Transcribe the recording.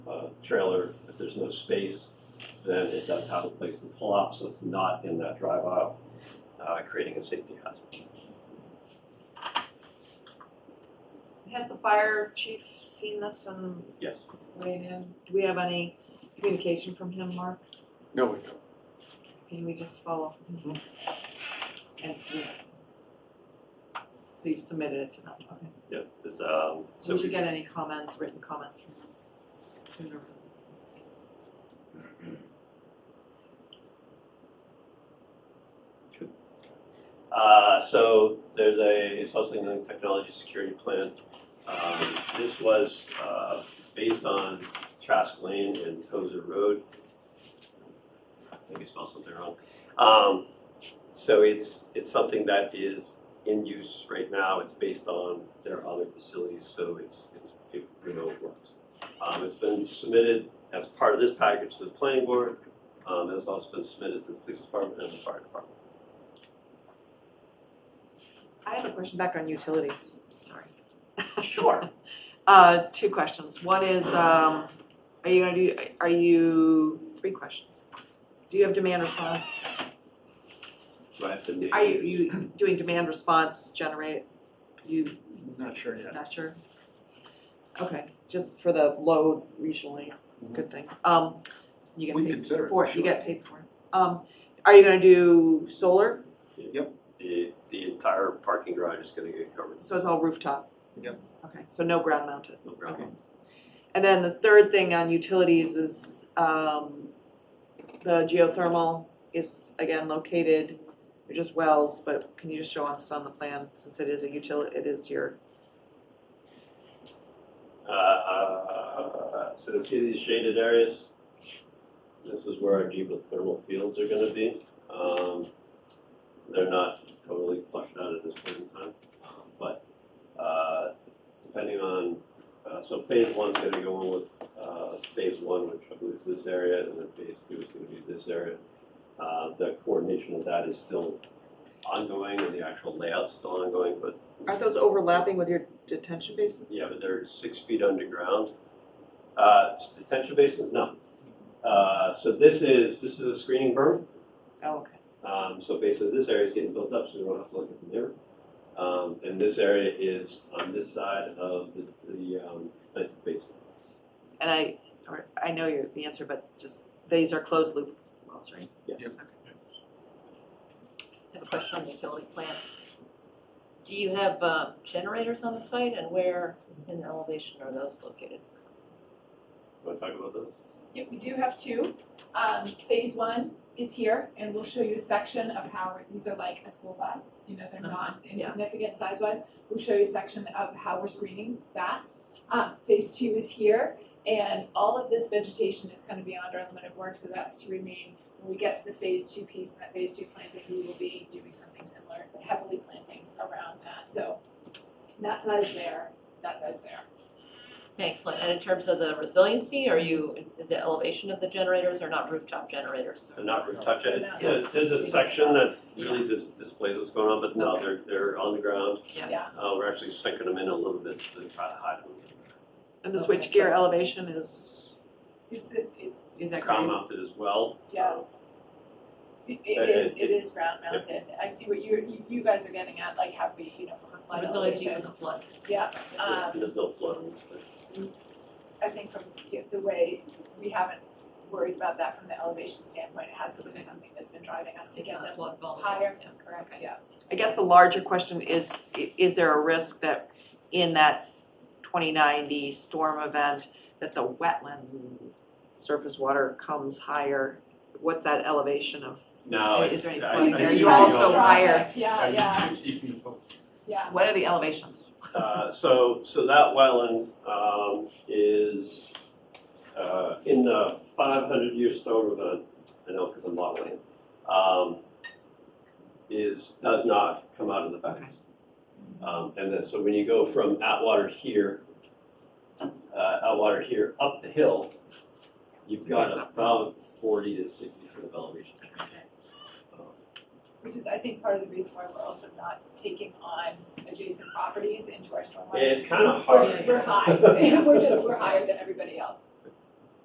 trailer, if there's no space, then it does have a place to pull up, so it's not in that drive aisle, uh, creating a safety hazard. Has the fire chief seen this and Yes. weighed in? Do we have any communication from him, Mark? No, we don't. Can we just follow up with him? And yes. So you submitted it to them, okay. Yep, it's, um, so So we we, get any comments, written comments from him sooner? uh, so there's a Sussex Link Technology Security Plan. Um, this was, uh, based on Trask Lane and Tozer Road. I think I spelled something wrong. Um, so it's, it's something that is in use right now, it's based on their other facilities, so it's, it's, it, you know, it works. Um, it's been submitted as part of this package to the planning board, um, it's also been submitted to the police department and the fire department. I have a question back on utilities, sorry. Sure. Uh, two questions. One is, um, are you gonna do, are you, three questions. Do you have demand response? Do I have to name? Are you, you doing demand response generate, you Not sure yet. not sure? Okay, just for the load regionally, it's a good thing. Um, you get We paid consider it, for it, you sure. get paid for it. Um, are you gonna do solar? The, the entire parking garage is gonna get covered, So it's all rooftop? Yep. Okay, so no ground mounted. no ground. And then the third thing on utilities is, um, the geothermal is again located, they're just wells, but can you just show us on the plan, since it is a utility, it is your Uh, so you see these shaded areas? This is where our geothermal fields are gonna be. Um, they're not totally flushed out at this point in time, but, uh, depending on, uh, so phase one's gonna go in with, uh, phase one, which I believe is this area, and then phase two is gonna be this area. Uh, the coordination of that is still ongoing, and the actual layout's still ongoing, but Aren't those overlapping with your detention basins? yeah, but they're six feet underground. Uh, s- detention basins, no. Uh, so this is, this is a screening berm. Oh, okay. Um, so basically this area is getting built up, so we don't have to look at the neighbor. Um, and this area is on this side of the, the, um, detention basin. And I, or I know your, the answer, but just, these are closed loop wells, right? Yeah. Yep. Okay. Have a question on the utility plant. Do you have uh, generators on the site and where in elevation are those located? Want to talk about those? Yeah, we do have two. Um, phase one is here, and we'll show you a section of how, these are like a school bus, you know, they're Uh-huh, not yeah. insignificant size-wise. We'll show you a section of how we're screening that. Um, phase two is here, and all of this vegetation is gonna be under limited work, so that's to remain. When we get to the phase two piece and that phase two planting, we will be doing something similar, but heavily planting around that, so that size there, that size there. Thanks, Lynn. And in terms of the resiliency, are you, the elevation of the generators are not rooftop generators? They're not roof touch it. Yeah. There- There's a section that really dis- displays what's going on, but no, they're, they're on the ground. Yeah. Yeah. Uh, we're actually sinking them in a little bit to try to hide them. And the Okay. switchgear elevation is, Is the, it's. is that Crown correct? mounted as well. Yeah. It Uh, it is, it is ground mounted, I see what you, you, you guys are getting at, like how we, you know, from a flood Resiliency elevation. with the flood. Yeah, There's, Um, Uh, there's no flooding, but. I think from you know, the way, we haven't worried about that from the elevation standpoint, it hasn't been Okay. something that's been driving us to It's get not them flood vulnerable. higher, Yeah. correct, Okay. yeah. I guess the larger question is, i- is there a risk that in that twenty ninety storm event, that the wetland surface water comes higher? What's that elevation of, No, Is it's, there any I, point I there? see You where you're also going. higher. Yeah, yeah, yeah, what are the elevations? Uh, so, so that wetland, um, is, uh, in the five hundred year storm event, I know, cause I'm modeling, it, um, is, does not come out of the banks. Um, and then, so when you go from Atwater here, uh, Atwater here up the hill, you've got about forty to sixty foot of elevation. Um, which is, I think, part of the reason why we're also not taking on adjacent properties into our stormwater. It's system. kinda hard. We're, we're high, we're just, we're higher than everybody else,